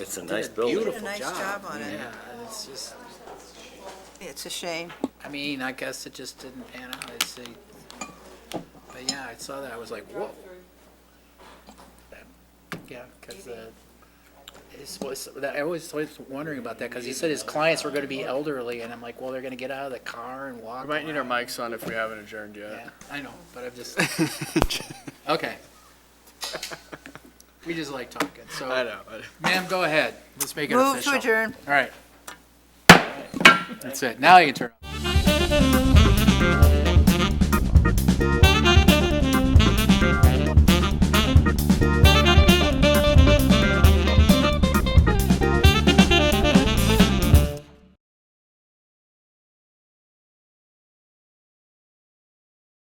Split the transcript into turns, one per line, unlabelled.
It's a
did
nice building.
Beautiful job.
Did a nice job on it.
Yeah, it's just,
It's a shame.
I mean, I guess it just didn't pan out, I see. But yeah, I saw that, I was like, whoa. Yeah, uh, because this was, that- I was always wondering about that, because he said his clients were going to be elderly, and I'm like, well, they're going to get out of the car and walk.
We might need our
around.
mics on if we haven't adjourned yet.
Yeah, I know, but I'm just, okay. We just like talking,
I
so,
know. but-
ma'am, go ahead, let's make it
Move
official.
to adjourn.
All right. That's it, now you can turn.